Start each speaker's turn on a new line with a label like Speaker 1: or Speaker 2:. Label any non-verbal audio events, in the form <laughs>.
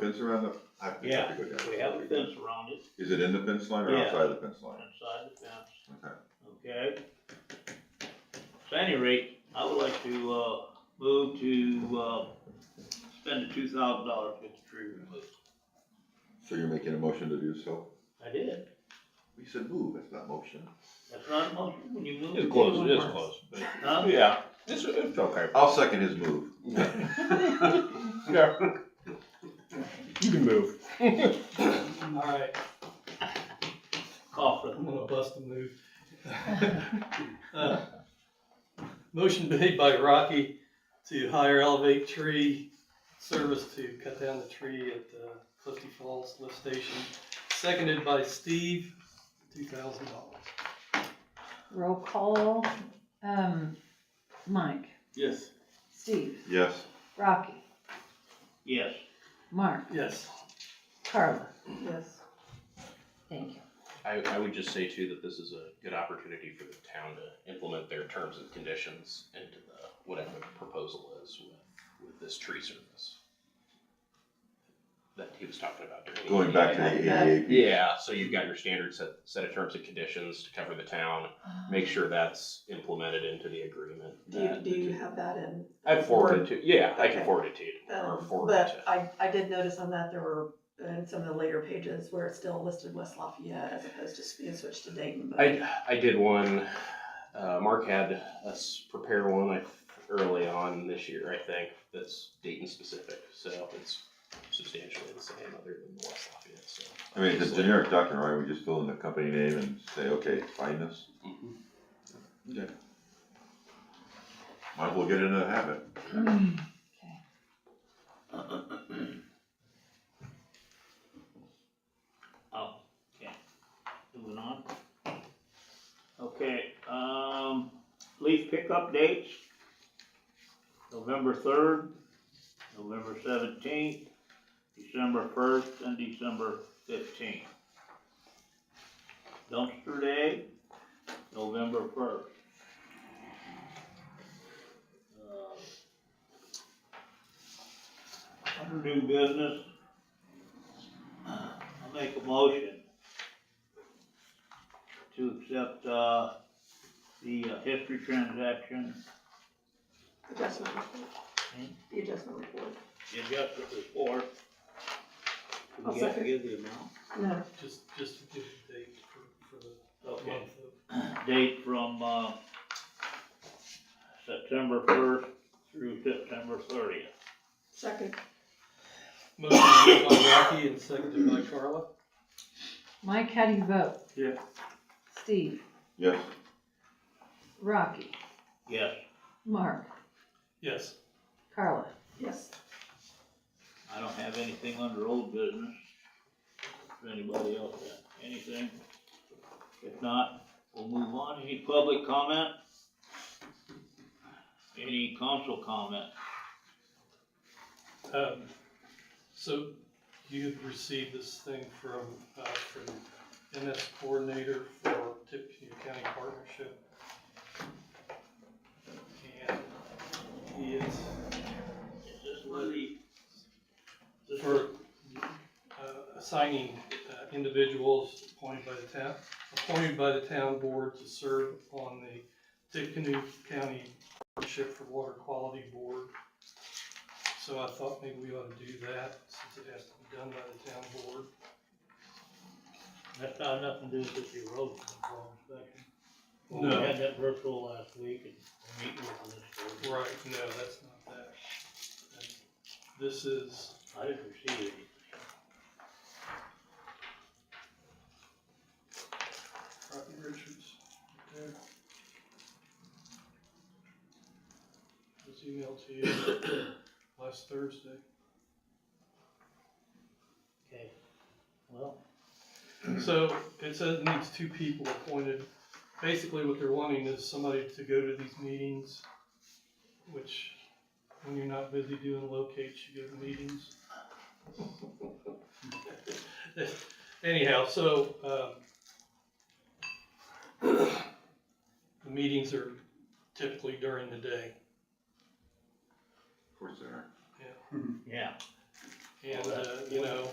Speaker 1: Fence around the, I have to
Speaker 2: Yeah,
Speaker 1: go down.
Speaker 2: we have a fence around it,
Speaker 1: Is it in the fence line or
Speaker 2: Yeah.
Speaker 1: outside the fence line?
Speaker 2: inside the fence,
Speaker 1: Okay.
Speaker 2: okay? So any rate, I would like to, uh, move to, uh, spend the two thousand dollars to get the tree removed.
Speaker 1: So you're making a motion to do so?
Speaker 2: I did,
Speaker 1: We said move, that's not motion.
Speaker 2: that's not a motion, when you move.
Speaker 3: It's close, it is close, but,
Speaker 2: Huh?
Speaker 3: yeah, it's, it's okay.
Speaker 1: I'll second his move.
Speaker 3: Yeah. You can move.
Speaker 4: Alright,
Speaker 2: Call for
Speaker 4: I'm
Speaker 2: the,
Speaker 4: gonna bust a move. <laughs> Uh, Motion made by Rocky to hire Elevate Tree Service to cut down the tree at uh, Clifty Falls Lift Station, seconded by Steve, two thousand dollars.
Speaker 5: Roll call, um, Mike,
Speaker 4: Yes.
Speaker 5: Steve,
Speaker 1: Yes,
Speaker 5: Rocky,
Speaker 2: yes,
Speaker 5: Mark,
Speaker 4: Yes,
Speaker 5: Carla. Yes. Thank you.
Speaker 3: I, I would just say too that this is a good opportunity for the town to implement their terms and conditions into the, whatever the proposal is with, with this tree service. That he was talking about during. the
Speaker 1: going back to
Speaker 3: meeting.
Speaker 1: the ADA. piece.
Speaker 3: Yeah, so you've got your standard set, set of terms and conditions to cover the town, make sure that's implemented into the agreement.
Speaker 6: Do you,
Speaker 3: that-
Speaker 6: do you have that in?
Speaker 3: I forwarded to, yeah, I can
Speaker 6: Okay.
Speaker 3: forward it to you, or
Speaker 6: Um,
Speaker 3: forward it
Speaker 6: But
Speaker 3: to.
Speaker 6: I, I did notice on that there were, uh, in some of the later pages where it's still listed West Lafayette as opposed to being switched to Dayton. but-
Speaker 3: I, I did one, uh, Mark had us prepare one I, early on this year, I think, that's Dayton specific, so it's substantially the same other than the West Lafayette, so.
Speaker 1: I mean, it's a generic document, right? We just fill in the company name and say, okay, find us.
Speaker 3: Mhm.
Speaker 1: Might as well get into the habit.
Speaker 5: Okay.
Speaker 2: oh, okay, moving on. Okay, um, leaf pickup dates, November third, November seventeenth, December first, and December fifteenth. Dumpster day, November first. Um, Under new business, I'll make a motion to accept, uh, the uh, history transaction,
Speaker 6: Adjustment report. The adjustment report.
Speaker 2: the adjustment report. Do
Speaker 6: I'll
Speaker 2: we have to
Speaker 6: second.
Speaker 2: give the amount?
Speaker 6: No,
Speaker 4: just, just to give the date for, for the
Speaker 2: Okay,
Speaker 4: month of,
Speaker 2: date from, uh, September first through September thirtieth.
Speaker 6: second,
Speaker 4: motion made by Rocky and seconded by Carla.
Speaker 5: Mike, how do you vote?
Speaker 2: Yeah.
Speaker 5: Steve,
Speaker 1: Yes,
Speaker 5: Rocky,
Speaker 2: Yes,
Speaker 5: Mark,
Speaker 4: Yes,
Speaker 5: Carla.
Speaker 6: yes.
Speaker 2: I don't have anything under old business. If anybody else has anything, if not, we'll move on. Any public comment? Any council comment?
Speaker 4: um, so you had received this thing from, uh, from MS coordinator for Tippecanoe County Partnership. And he is
Speaker 2: Is this where the? this where-
Speaker 4: for uh, assigning uh, individuals appointed by the town, appointed by the town board to serve on the Tippecanoe County Partnership for Water Quality Board. So I thought maybe we ought to do that since it has to be done by the town board.
Speaker 2: That's not nothing to do with the road control inspection. We
Speaker 4: No.
Speaker 2: had that virtual last week and we're meeting with this.
Speaker 4: Right, no, that's not that. This is,
Speaker 2: I didn't receive any.
Speaker 4: Rocky Richards. right there. Was emailed to you <coughs> last Thursday.
Speaker 2: Okay. Well,
Speaker 4: So it says it needs two people appointed. Basically, what they're wanting is somebody to go to these meetings, which when you're not busy doing locates, you go to meetings. <laughs> Anyhow, so, um, <coughs> the meetings are typically during the day.
Speaker 1: of course there.
Speaker 2: yeah,
Speaker 4: And, uh, you know,